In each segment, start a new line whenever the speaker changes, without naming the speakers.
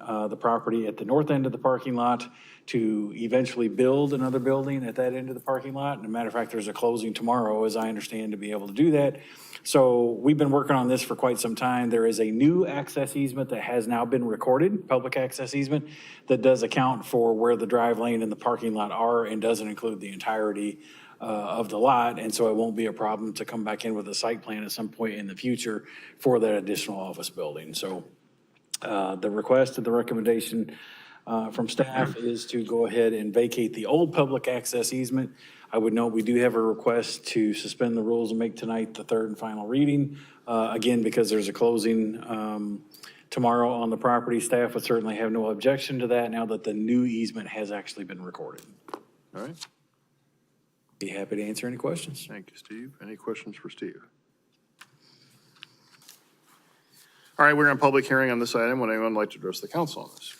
uh, the property at the north end of the parking lot to eventually build another building at that end of the parking lot. And a matter of fact, there's a closing tomorrow, as I understand, to be able to do that. So we've been working on this for quite some time. There is a new access easement that has now been recorded, public access easement, that does account for where the drive lane and the parking lot are and doesn't include the entirety uh, of the lot. And so it won't be a problem to come back in with a site plan at some point in the future for that additional office building. So uh, The request and the recommendation uh, from staff is to go ahead and vacate the old public access easement. I would note, we do have a request to suspend the rules and make tonight the third and final reading. Uh, Again, because there's a closing um, tomorrow on the property, staff would certainly have no objection to that now that the new easement has actually been recorded.
All right,
Be happy to answer any questions.
thank you, Steve. Any questions for Steve? All right, we're in public hearing on this item. Would anyone like to address the council on this?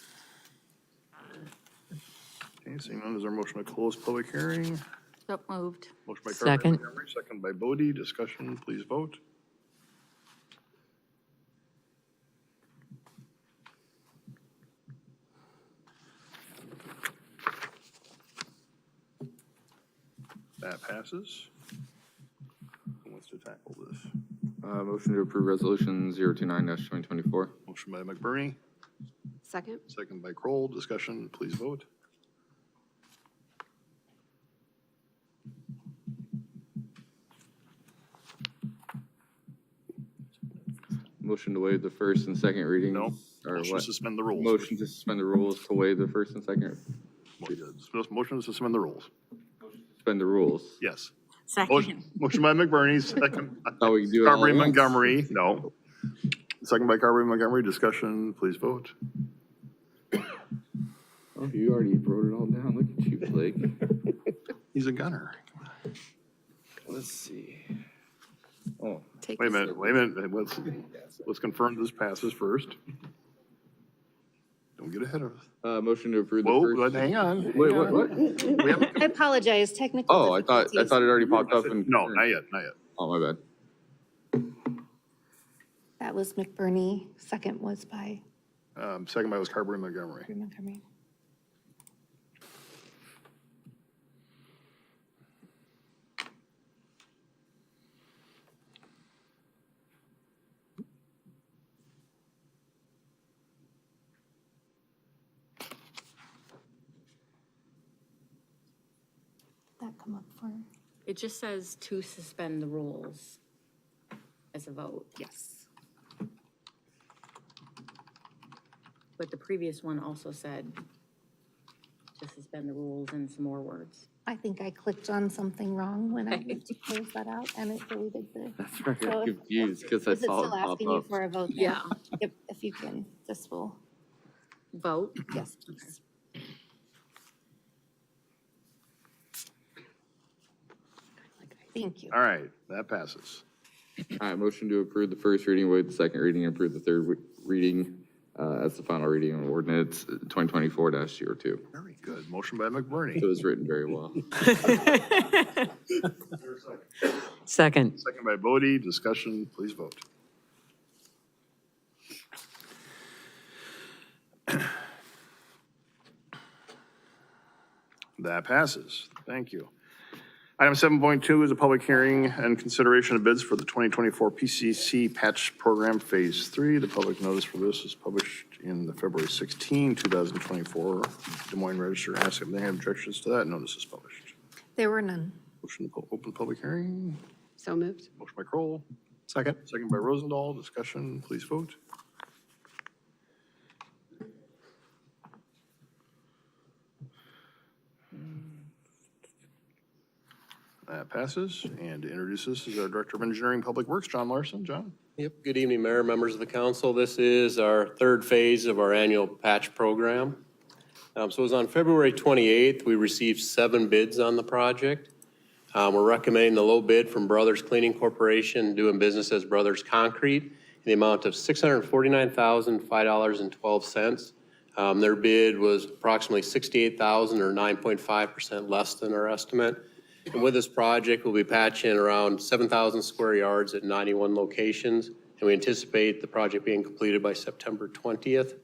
Okay, seeing none, is there a motion to close public hearing?
So moved.
Motion by Carpenter
Second.
Montgomery, second by Bodie. Discussion, please vote. That passes. Who wants to tackle this?
Uh, motion to approve resolution zero two nine dash twenty twenty-four.
Motion by McBurney,
Second?
second by Kroll. Discussion, please vote.
Motion to waive the first and second reading.
No.
Or
Motion to
what?
suspend the rules.
Motion to suspend the rules to waive the first and second,
Motion to suspend the rules.
suspend the rules.
Yes. Motion
Second.
motion by McBurney, second by
Thought we could do it all
Carberry
at once.
Montgomery, no. Second by Carberry Montgomery, discussion, please vote.
Oh, you already wrote it all down. Look at you, Blake.
He's a gunner.
Let's see. Oh,
Take
Wait a
this-
minute, wait a minute, let's, let's confirm this passes first. Don't get ahead of us.
uh, motion to approve the
Whoa, but
first.
hang on.
Wait, what, what?
I apologize, technical.
Oh, I thought, I
difficulties.
thought it already popped up and.
No, not yet, not yet.
Oh, my bad.
That was McBurney, second was by
Um, second by was Carberry Montgomery.
Montgomery. That come up for,
It just says to suspend the rules as a vote,
yes.
but the previous one also said to suspend the rules and some more words.
I think I clicked on something wrong when I went to close that out and it deleted the.
That's right.
So
I'm
if-
confused because I
Is it
saw
still
it
asking you
pop
for
up.
a vote? now?
Yeah.
Yep, if you can, this will,
Vote?
yes, please. Thank you.
All right, that passes.
All right, motion to approve the first reading, waive the second reading, and approve the third re- reading, uh, as the final reading on ordinance twenty twenty-four dash zero two.
Very good, motion by
It
McBurney,
was written very well.
Second.
second by Bodie, discussion, please vote. That passes. Thank you. Item 7.2 is a public hearing and consideration of bids for the 2024 PCC Patch Program Phase 3. The public notice for this is published in the February 16, 2024 Des Moines Register. Ask if they have objections to that. Notice is published.
There were none.
Motion to po- open public hearing.
So moved.
Motion by Kroll. Second. Second by Rosendahl. Discussion, please vote. That passes. And to introduce this is our Director of Engineering Public Works, John Larson. John?
Yep, good evening, Mayor, members of the council. This is our third phase of our annual patch program. Um, So it was on February 28th, we received seven bids on the project. Um, We're recommending the low bid from Brothers Cleaning Corporation, doing business as Brothers Concrete, in the amount of $649,005.12. Um, Their bid was approximately $68,000 or 9.5% less than our estimate. And with this project, we'll be patching around 7,000 square yards at 91 locations, and we anticipate the project being completed by September 20th.